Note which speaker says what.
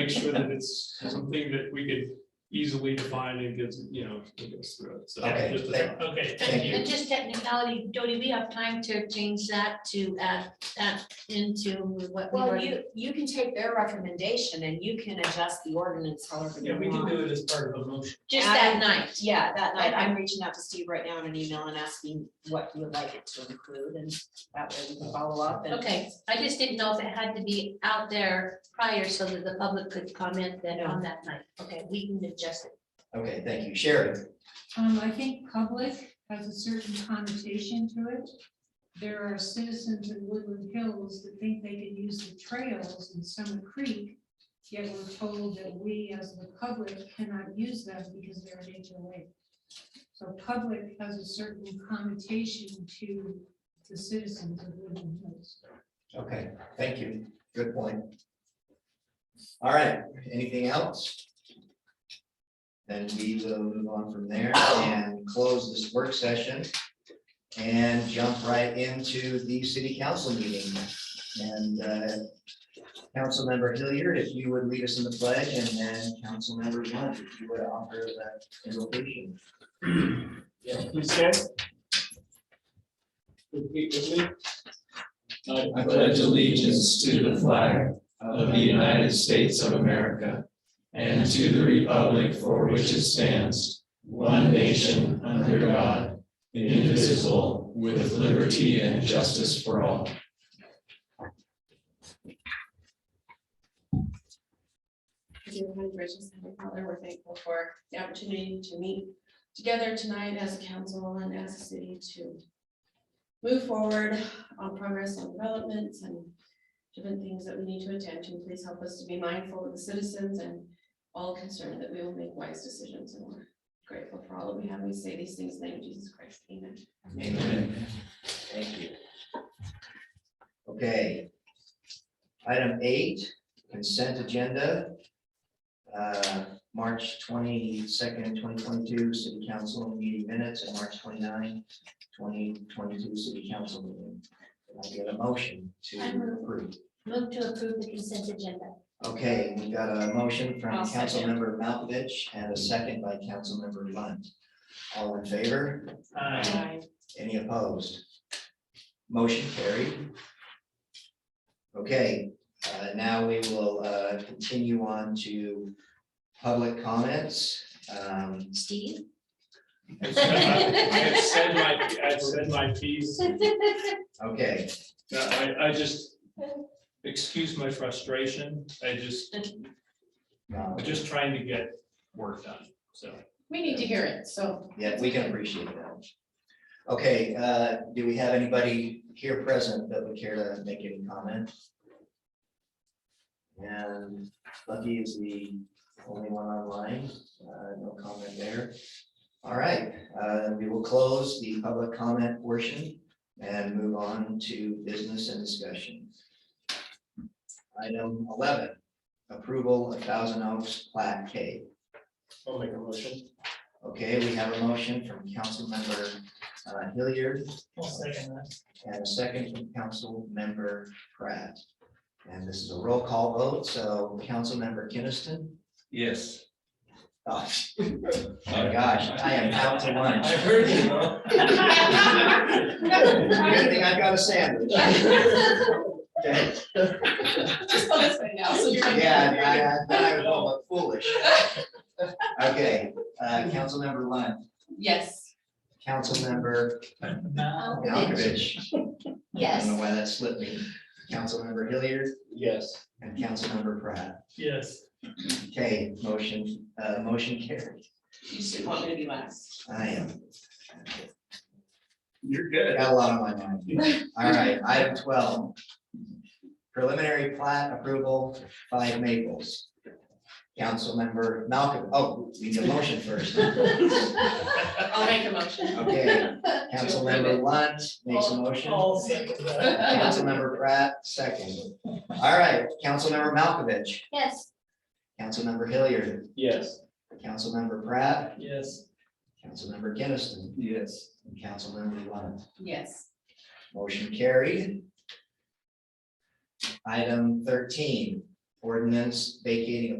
Speaker 1: make sure that it's something that we could easily define and gives, you know, it goes through it. So
Speaker 2: Okay,
Speaker 1: just a
Speaker 2: thank-
Speaker 1: thought.
Speaker 3: Okay,
Speaker 2: Thank
Speaker 3: thank you.
Speaker 4: And just technicality, Jody, we have time to change that to add that into what we
Speaker 5: Well,
Speaker 4: already.
Speaker 5: you, you can take their recommendation and you can adjust the ordinance however
Speaker 3: Yeah,
Speaker 5: you
Speaker 3: we can do
Speaker 5: want.
Speaker 3: it as part of a motion.
Speaker 4: Just that
Speaker 5: add-
Speaker 4: night.
Speaker 5: Yeah, that night, I'm reaching out to Steve right now in an email and asking what you would like it to include, and that way we can follow up and.
Speaker 4: Okay, I just didn't know if it had to be out there prior so that the public could comment then on that night. Okay, we can adjust it.
Speaker 2: Okay, thank you. Sharon,
Speaker 6: Um, I think public has a certain connotation to it. There are citizens in Woodland Hills that think they can use the trails in Summer Creek. Yet we're told that we as the public cannot use them because they're an HOA. So public has a certain connotation to the citizens of Woodland Hills.
Speaker 2: okay, thank you. Good point. All right, anything else? Then we will move on from there and close this work session and jump right into the city council meeting. And uh, Councilmember Hilliard, if you would lead us in the pledge, and then Councilmember Lunt, if you would offer that invocation.
Speaker 1: Yeah, please stand. Repeat with me.
Speaker 7: I pledge allegiance to the flag of the United States of America and to the republic for which it stands, one nation under God, indivisible, with liberty and justice for all.
Speaker 8: Thank you, Heavenly Gracious Heavenly Father, we're thankful for the opportunity to meet together tonight as a council and as a city to move forward on progress and developments and different things that we need to attend to. Please help us to be mindful of the citizens and all concerned that we will make wise decisions. And we're grateful for all that we have. We say these things in the name of Jesus Christ. Amen.
Speaker 2: Amen. Thank you. Okay. Item eight, consent agenda. Uh, March twenty-second, twenty twenty-two, city council meeting minutes, and March 29, 2022, city council meeting. Can I get a motion
Speaker 4: I
Speaker 2: to
Speaker 4: move.
Speaker 2: approve?
Speaker 4: Move to approve the consent agenda.
Speaker 2: Okay, we got a motion from
Speaker 8: I'll
Speaker 2: council
Speaker 8: second.
Speaker 2: member Malkovich and a second by council member Lunt. All in favor?
Speaker 3: Uh,
Speaker 2: Any opposed? Motion carried. Okay, uh, now we will uh, continue on to public comments. Um,
Speaker 4: Steve?
Speaker 1: I've said my- I've said my, I've said my piece.
Speaker 2: Okay,
Speaker 1: No, I, I just, excuse my frustration. I just,
Speaker 2: no,
Speaker 1: I'm just trying to get work done, so.
Speaker 8: We need to hear it, so.
Speaker 2: yeah, we can appreciate that. Okay, uh, do we have anybody here present that would care to make any comment? And Lucky is the only one online, uh, no comment there. All right, uh, we will close the public comment portion and move on to business and discussion. Item eleven, approval of Thousand Oaks Plat K.
Speaker 1: I'll make a motion.
Speaker 2: Okay, we have a motion from Councilmember uh, Hilliard
Speaker 3: I'll second that.
Speaker 2: and a second from Councilmember Pratt. And this is a roll call vote, so Councilmember Kinnison.
Speaker 7: Yes.
Speaker 2: Oh, my gosh, I am out to lunch.
Speaker 7: I heard you, bro.
Speaker 2: Good thing I got a sandwich. Okay,
Speaker 8: Just go this way now, so you're not-
Speaker 2: Yeah, I- I, I was all but foolish. Okay, uh, Councilmember Lund,
Speaker 8: Yes.
Speaker 2: Councilmember Malkovich. I don't know
Speaker 4: Yes.
Speaker 2: why that slipped me. Councilmember Hilliard
Speaker 1: Yes.
Speaker 2: and Councilmember Pratt.
Speaker 3: Yes.
Speaker 2: Okay, motion, uh, motion carried.
Speaker 8: You should want me to be last.
Speaker 2: I am,
Speaker 1: You're good.
Speaker 2: got a lot on my mind. All right, item twelve. Preliminary plat approval, five Maples. Councilmember Malcolm, oh, we need a motion first.
Speaker 8: I'll make a motion.
Speaker 2: Okay, Councilmember Lunt makes a motion.
Speaker 3: I'll second that.
Speaker 2: Councilmember Pratt, second. All right, Councilmember Malkovich,
Speaker 4: Yes.
Speaker 2: Councilmember Hilliard,
Speaker 1: Yes.
Speaker 2: Councilmember Pratt,
Speaker 3: Yes.
Speaker 2: Councilmember Kinnison,
Speaker 7: Yes.
Speaker 2: and Councilmember Lunt.
Speaker 8: Yes.
Speaker 2: Motion carried. Item thirteen, ordinance vacating a